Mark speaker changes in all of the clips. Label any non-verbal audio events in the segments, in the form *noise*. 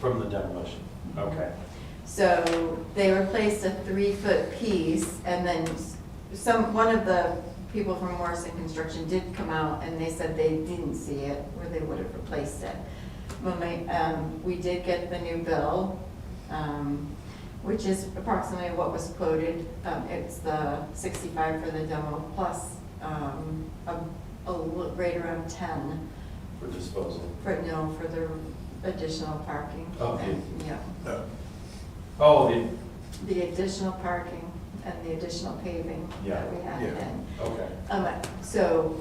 Speaker 1: From the demolition, okay.
Speaker 2: So they replaced a three-foot piece, and then s- some, one of the people from Morrison Construction did come out, and they said they didn't see it, or they would have replaced it. When we, um, we did get the new bill, um, which is approximately what was quoted. Um, It's the sixty-five for the demo, plus um, a, a little- right around ten
Speaker 1: For disposal.
Speaker 2: for, no, for the additional parking.
Speaker 1: Okay.
Speaker 2: Yeah.
Speaker 1: Oh, the,
Speaker 2: the additional parking and the additional paving
Speaker 1: Yeah.
Speaker 2: that we had
Speaker 3: Yeah.
Speaker 2: in.
Speaker 1: okay.
Speaker 2: Um, so,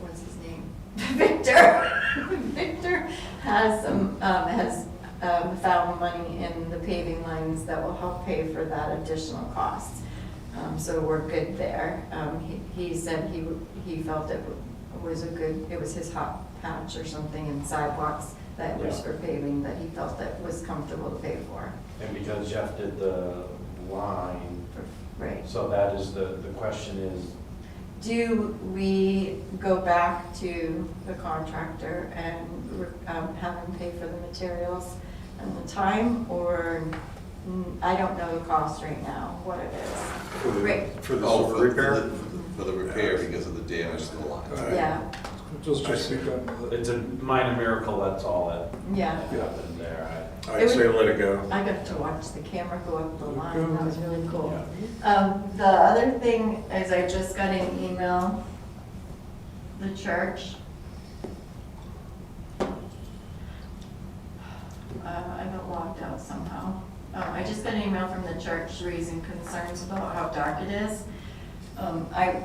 Speaker 2: what's his name? *laughs* Victor, *laughs* Victor has some, um, has, um, found money in the paving lines that will help pay for that additional cost. Um, so we're good there. Um, he, he said he, w- he felt it w- was a good, it was his hot patch or something in sidewalks that was
Speaker 1: Yeah.
Speaker 2: for paving that he felt that was comfortable to pay for.
Speaker 1: And because Jeff did the line,
Speaker 2: Right.
Speaker 1: so that is the, the question is,
Speaker 2: Do we go back to the contractor and um, have him pay for the materials and the time? Or, mm, I don't know the cost right now, what it is.
Speaker 4: For the-
Speaker 2: Right.
Speaker 4: For the
Speaker 3: Oh, for-
Speaker 4: sewer
Speaker 3: for
Speaker 4: repair?
Speaker 3: the- For the repair because of the damage to the lines.
Speaker 4: Alright.
Speaker 2: Yeah,
Speaker 5: Just,
Speaker 4: I
Speaker 5: just
Speaker 4: see.
Speaker 5: be done with it.
Speaker 1: it's a minor miracle, that's all that
Speaker 2: yeah.
Speaker 1: happened there.
Speaker 4: I'd say let it go.
Speaker 2: I got to watch the camera go up the line, that was really
Speaker 1: I-
Speaker 2: cool.
Speaker 1: yeah.
Speaker 2: Um, the other thing is I just got an email, the church. Uh, I got logged out somehow. Um, I just got an email from the church raising concerns about how dark it is. Um, I,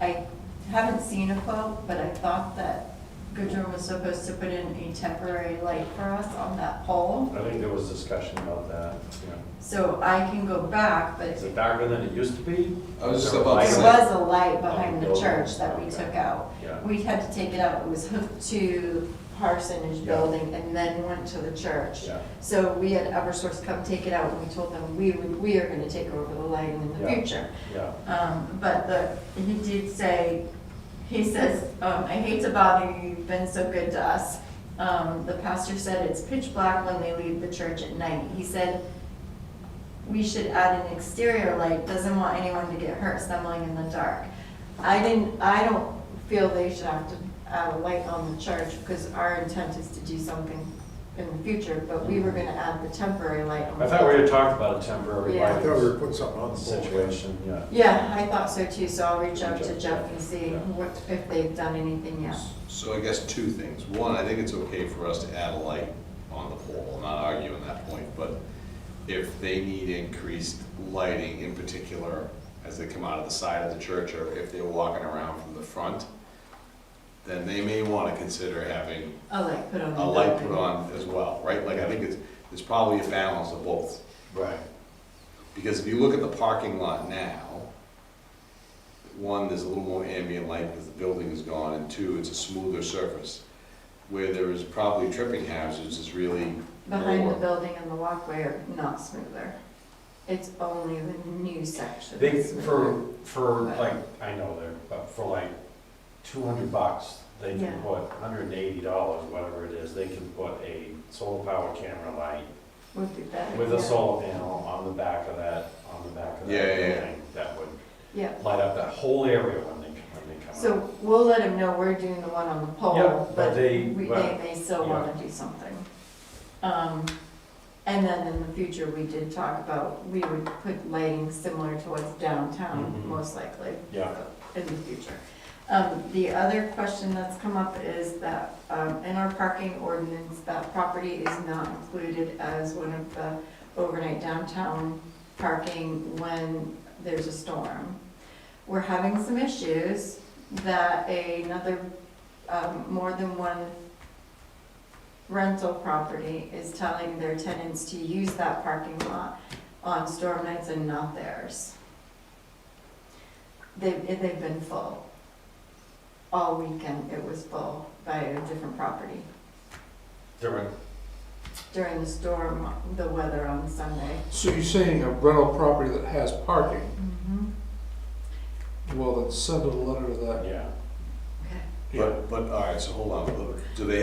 Speaker 2: I haven't seen a quote, but I thought that Goodrum was supposed to put in a temporary light for us on that pole.
Speaker 1: I think there was discussion about that, yeah.
Speaker 2: So I can go back, but
Speaker 1: Is it darker than it used to be?
Speaker 3: I was just
Speaker 1: Is there
Speaker 3: about to
Speaker 1: light?
Speaker 2: There
Speaker 3: say.
Speaker 2: was a light behind the church that we took out.
Speaker 1: Yeah.
Speaker 2: We had to take it out, it was hooked to Parsonage
Speaker 1: Yeah.
Speaker 2: Building and then went to the church.
Speaker 1: Yeah.
Speaker 2: So we had Eversource come take it out, and we told them we would, we are gonna take over the lighting in the
Speaker 1: Yeah.
Speaker 2: future.
Speaker 1: Yeah,
Speaker 2: Um, but the, he did say, he says, um, I hate to bother you, you've been so good to us. Um, the pastor said it's pitch black when they leave the church at night. He said, we should add an exterior light, doesn't want anyone to get hurt stumbling in the dark. I didn't, I don't feel they should have to add a light on the church, because our intent is to do something in the future, but we were gonna add the temporary light on the
Speaker 1: I thought we had talked about a temporary
Speaker 2: Yeah.
Speaker 4: I thought we were
Speaker 1: lighting
Speaker 4: putting something on the pole.
Speaker 1: situation, yeah.
Speaker 2: yeah, I thought so too, so I'll reach out to Jeff and see
Speaker 1: Yeah.
Speaker 2: what, if they've done anything yet.
Speaker 3: So I guess two things. One, I think it's okay for us to add a light on the pole, I'm not arguing that point, but if they need increased lighting in particular as they come out of the side of the church or if they're walking around from the front, then they may want to consider having
Speaker 2: A light put on. the
Speaker 3: a light put
Speaker 2: building.
Speaker 3: on as well, right? Like I think it's, there's probably a balance of both.
Speaker 1: Right.
Speaker 3: Because if you look at the parking lot now, one, there's a little more ambient light because the building is gone, and two, it's a smoother surface. Where there is probably tripping hazards is really
Speaker 2: Behind the
Speaker 3: lower.
Speaker 2: building and the walkway are not smoother. It's only the new section.
Speaker 1: They,
Speaker 2: that's smoother.
Speaker 1: for, for like, I know they're, but for like two hundred bucks, they
Speaker 2: Yeah.
Speaker 1: can put hundred and eighty dollars, whatever it is, they can put a solar powered camera light
Speaker 2: Would be better.
Speaker 1: with a
Speaker 2: yeah.
Speaker 1: solar panel on the back of that, on the back of
Speaker 3: Yeah,
Speaker 1: that
Speaker 3: yeah, yeah.
Speaker 1: building. That would
Speaker 2: Yeah,
Speaker 1: light up that whole area when they, when they come out.
Speaker 2: so we'll let them know we're doing the one on the
Speaker 1: Yeah,
Speaker 2: pole,
Speaker 1: but
Speaker 2: but
Speaker 1: they-
Speaker 2: we, they
Speaker 1: well,
Speaker 2: may still
Speaker 1: yeah.
Speaker 2: wanna do something. Um, and then in the future, we did talk about, we would put lighting similar to what's
Speaker 1: Mhm.
Speaker 2: downtown, most likely.
Speaker 1: Yeah.
Speaker 2: in the future. Um, The other question that's come up is that um, in our parking ordinance, that property is not included as one of the overnight downtown parking when there's a storm. We're having some issues that another, um, more than one rental property is telling their tenants to use that parking lot on storm nights and not theirs. They've, eh, they've been full. All weekend, it was full by a different property.
Speaker 1: During,
Speaker 2: During the storm, the weather on Sunday.
Speaker 5: So you're saying a rental property that has parking, well, then send a letter to that
Speaker 1: yeah.
Speaker 2: Okay.
Speaker 3: But, but, all right, so hold on, do they